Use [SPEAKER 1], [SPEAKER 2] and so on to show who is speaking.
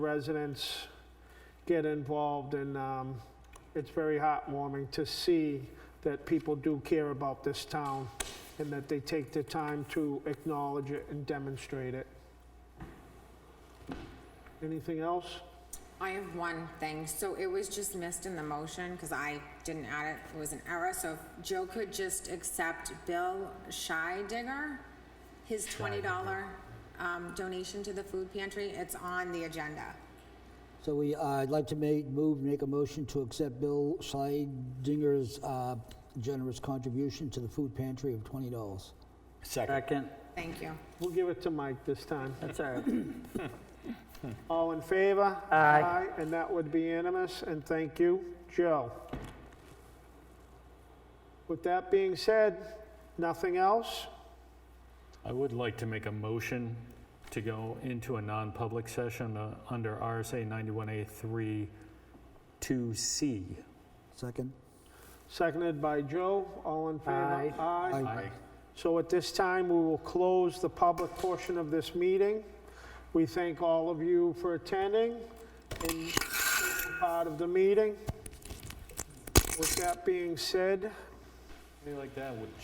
[SPEAKER 1] residents get involved, and um, it's very heartwarming to see that people do care about this town and that they take the time to acknowledge it and demonstrate it. Anything else?
[SPEAKER 2] I have one thing, so it was just missed in the motion, because I didn't add it, it was an error, so if Joe could just accept Bill Shydigger, his twenty dollar, um, donation to the food pantry, it's on the agenda.
[SPEAKER 3] So we, uh, I'd like to make, move, make a motion to accept Bill Schleidinger's uh, generous contribution to the food pantry of $20.
[SPEAKER 4] Second.
[SPEAKER 5] Second,
[SPEAKER 2] Thank you.
[SPEAKER 1] We'll give it to Mike this time.
[SPEAKER 5] that's all right.
[SPEAKER 1] All in favor?
[SPEAKER 5] Aye.
[SPEAKER 1] And that would be unanimous, and thank you, Joe. With that being said, nothing else?
[SPEAKER 6] I would like to make a motion to go into a non-public session uh, under RSA 91A3 2C.
[SPEAKER 3] Second?
[SPEAKER 1] Seconded by Joe, all in favor?
[SPEAKER 5] Aye.
[SPEAKER 1] Aye. So at this time, we will close the public portion of this meeting. We thank all of you for attending and being part of the meeting. With that being said,
[SPEAKER 6] Something like that would